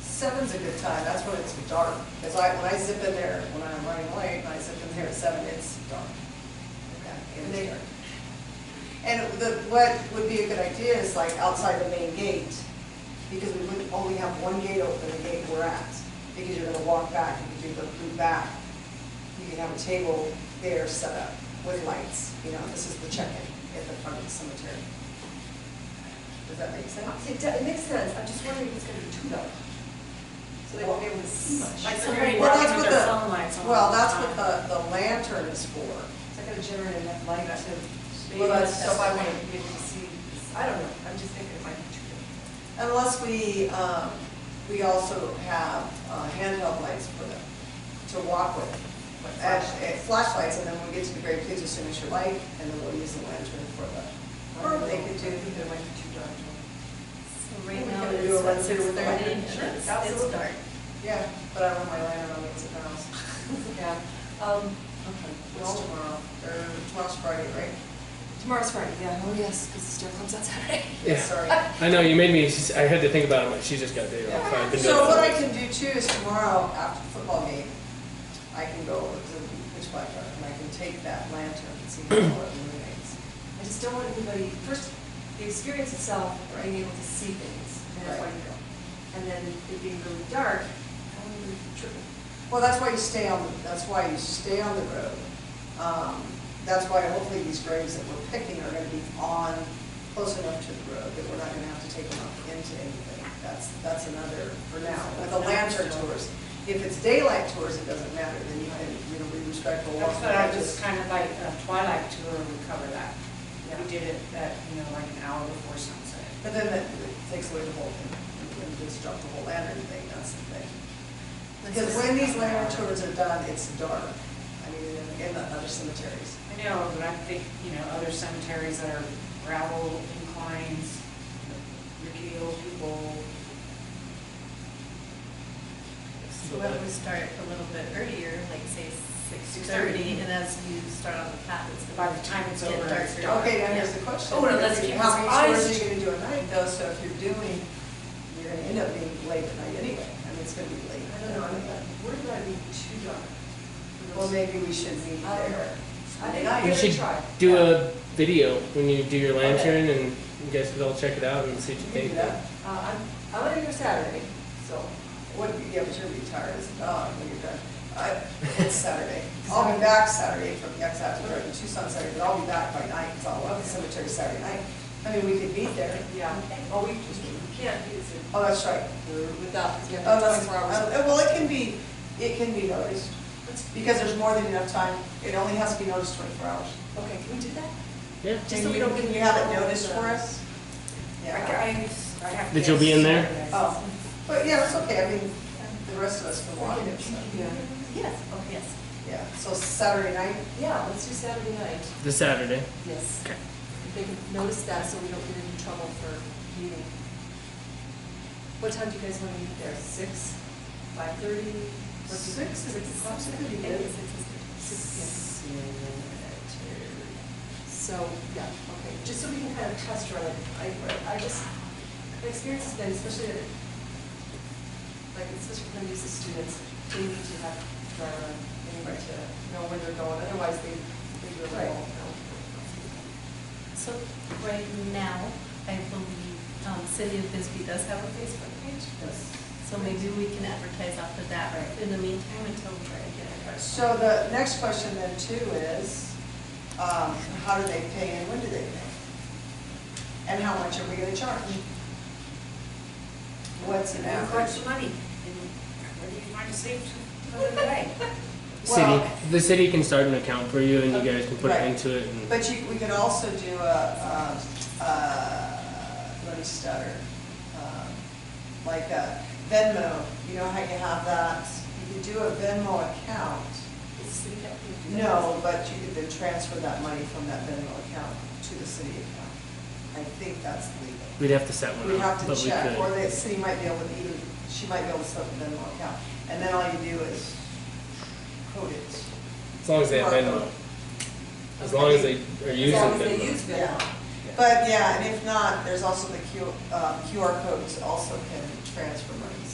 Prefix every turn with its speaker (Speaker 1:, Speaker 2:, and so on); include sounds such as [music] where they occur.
Speaker 1: seven's a good time, that's when it's dark, because I, when I zip in there, when I'm running late, and I zip in there at seven, it's dark. Okay, It is dark. And the, what would be a good idea is like outside the main gate, because we would only have one gate open, the gate we're at, because you're gonna walk back, you could do the loop back. You can have a table there set up with lights, you know, this is the check-in at the front of the cemetery. Does that make sense?
Speaker 2: It do- It makes sense, I'm just wondering if it's gonna be too dark. So they won't be able to see much.
Speaker 1: Like
Speaker 2: Is
Speaker 1: somebody
Speaker 3: Well,
Speaker 1: that's
Speaker 3: that's
Speaker 1: what
Speaker 3: with
Speaker 1: the-
Speaker 3: their phone lights on
Speaker 1: Well,
Speaker 3: all the
Speaker 1: that's
Speaker 3: time.
Speaker 1: what the, the lantern is for.
Speaker 2: that gonna generate enough light to?
Speaker 1: Well, that's-
Speaker 2: So I want to be able to see, I don't know, I'm just thinking it might be too dark. [laughs]
Speaker 1: Unless we, um, we also have uh, handheld lights for them to walk with.
Speaker 2: Like
Speaker 1: And,
Speaker 2: flashlights.
Speaker 1: uh, Flashlights, and then when we get to the grave, please extinguish your light, and then we'll use the lantern for the.
Speaker 2: Or they could do, it might be too dark.
Speaker 3: So
Speaker 1: We
Speaker 3: right now
Speaker 1: can
Speaker 3: it's
Speaker 1: do a run
Speaker 3: what,
Speaker 1: through
Speaker 3: six
Speaker 1: with the light.
Speaker 3: thirty?
Speaker 1: Sure,
Speaker 3: It's
Speaker 2: absolutely.
Speaker 3: dark.
Speaker 1: Yeah, but I want my lantern on, it's at the house.
Speaker 2: [laughs] Yeah, um,
Speaker 1: Okay. It's tomorrow, or tomorrow's Friday, right?
Speaker 2: tomorrow's Friday, yeah.
Speaker 3: Oh, yes, because the store comes on
Speaker 2: [laughs]
Speaker 3: Saturday.
Speaker 4: Yeah.
Speaker 1: Sorry.
Speaker 4: I know, you made me, I had to think about it, I'm like, she's just got a day off. I've been doing
Speaker 1: So what I
Speaker 4: it.
Speaker 1: can do too is tomorrow after the football game, I can go over to the pitch black dark and I can take that lantern and see how well it illuminates.
Speaker 2: I just don't want anybody, first, the experience itself, of being able to see things, and that's why you go. And then it being really dark, I don't want to trip.
Speaker 1: Well, that's why you stay on, that's why you stay on the road. Um, That's why hopefully these graves that we're picking are gonna be on, close enough to the road that we're not gonna have to take them up into anything. That's, that's another for now. With the lantern tours, if it's daylight tours, it doesn't matter, then you can, you know, be respectful. walk
Speaker 5: That's what I
Speaker 1: the edges.
Speaker 5: was kind of like, a Twilight tour would cover that.
Speaker 2: Yeah.
Speaker 5: We did it at, you know, like an hour before sunset.
Speaker 1: But then that takes away the whole thing, and just drop the whole lantern thing, that's the thing. Because when these lantern tours are done, it's dark, I mean, in- in the other cemeteries.
Speaker 5: I know, but I think, you know, other cemeteries that are gravel inclines, rickety old people.
Speaker 6: So Why don't we start a little bit earlier, like say six thirty, and as you start on the path, it's
Speaker 5: By
Speaker 6: about.
Speaker 5: the time it's
Speaker 6: Get
Speaker 5: over, it's
Speaker 6: darker.
Speaker 5: dark.
Speaker 1: Okay, now here's the question.
Speaker 3: Oh, no, let's keep
Speaker 1: How
Speaker 3: this
Speaker 1: many tours
Speaker 3: iced.
Speaker 1: are you gonna do at night though, so if you're doing, you're gonna end up being late at night anyway, I mean, it's gonna be late.
Speaker 2: I don't know, I'm worried about it being too dark.
Speaker 1: Well, maybe we should meet
Speaker 2: I don't know.
Speaker 1: there.
Speaker 2: I
Speaker 1: Sunday
Speaker 2: think
Speaker 1: night.
Speaker 2: we
Speaker 4: You should
Speaker 2: try.
Speaker 4: do a video when you do your lantern and you guys could all check it out and see what
Speaker 1: You can
Speaker 4: you think.
Speaker 1: do that.
Speaker 2: Uh, I'm, I'm gonna go Saturday, so.
Speaker 1: What, yeah, but you're retired as a dog when you're done. I- Uh,
Speaker 2: [laughs]
Speaker 1: It's Saturday. I'll be back Saturday from, yeah, Saturday, we're in Tucson Saturday, but I'll be back by night, because I'll love the cemetery Saturday night. I mean, we could meet there.
Speaker 2: Yeah, well, we just, we can't do this
Speaker 1: Oh, that's right.
Speaker 2: without, because we have
Speaker 1: Oh, that's,
Speaker 2: twenty-four hours.
Speaker 1: uh, well, it can be, it can be noticed, because there's more than enough time. It only has to be noticed twenty-four hours.
Speaker 2: Oh, Okay, can we do that?
Speaker 4: Yeah,
Speaker 2: Just so we
Speaker 1: Can you-
Speaker 2: don't get
Speaker 1: Can
Speaker 2: in
Speaker 1: you have it
Speaker 2: trouble with
Speaker 1: noticed
Speaker 2: the-
Speaker 1: for us?
Speaker 5: I,
Speaker 1: Yeah.
Speaker 5: I, I have.
Speaker 4: That you'll be in there?
Speaker 5: Saturday.
Speaker 1: Oh, but yeah, it's okay. I mean, the rest of us can watch it, so,
Speaker 2: Yeah,
Speaker 6: Yes, oh, yes.
Speaker 1: yeah. So Saturday night,
Speaker 2: yeah, let's do Saturday night,
Speaker 4: this Saturday.
Speaker 2: yes.
Speaker 4: Okay.
Speaker 2: If they can notice that, so we don't get into trouble for meeting. What time do you guys want to meet there, six, five thirty?
Speaker 1: Six is- that's a good idea.
Speaker 2: Six, six, yeah. So, yeah, okay, just so we can kind of test run it, I, I just, the experience has been, especially, at- like, especially when these students, they need to have driver, they need
Speaker 1: Right.
Speaker 2: to know where they're going, otherwise they, they really
Speaker 1: Right.
Speaker 2: won't know.
Speaker 6: So right now, I believe, um, City of Bisbee does have a Facebook page,
Speaker 1: yes.
Speaker 6: so maybe we can advertise off of that
Speaker 1: Right.
Speaker 6: in the meantime until we try to get our. first
Speaker 1: So the next question then too is, um, how do they pay and when do they pay? And how much are we gonna charge? What's an
Speaker 5: And collect
Speaker 1: average?
Speaker 5: some money, and whether you find a safe, another day.
Speaker 4: City,
Speaker 1: Well-
Speaker 4: the city can start an account for you and you guys can put it
Speaker 1: Right.
Speaker 4: into it and.
Speaker 1: But you, we could also do a, um, uh, let me stutter, um, like a Venmo, you know how you have that? You could do a Venmo account.
Speaker 6: city that we do that.
Speaker 1: No, but you could then transfer that money from that Venmo account to the city account. I think that's legal.
Speaker 4: We'd have to set one up.
Speaker 1: We have to
Speaker 4: but we
Speaker 1: check,
Speaker 4: could.
Speaker 1: or the city might be able to even, she might be able to set up a Venmo account. And then all you do is code it.
Speaker 4: As long as they have Venmo. As long as they are using
Speaker 2: As long as they
Speaker 4: Venmo.
Speaker 2: use
Speaker 1: Yeah.
Speaker 2: Venmo.
Speaker 1: But yeah, and if not, there's also the Q- uh, QR codes also can transfer monies.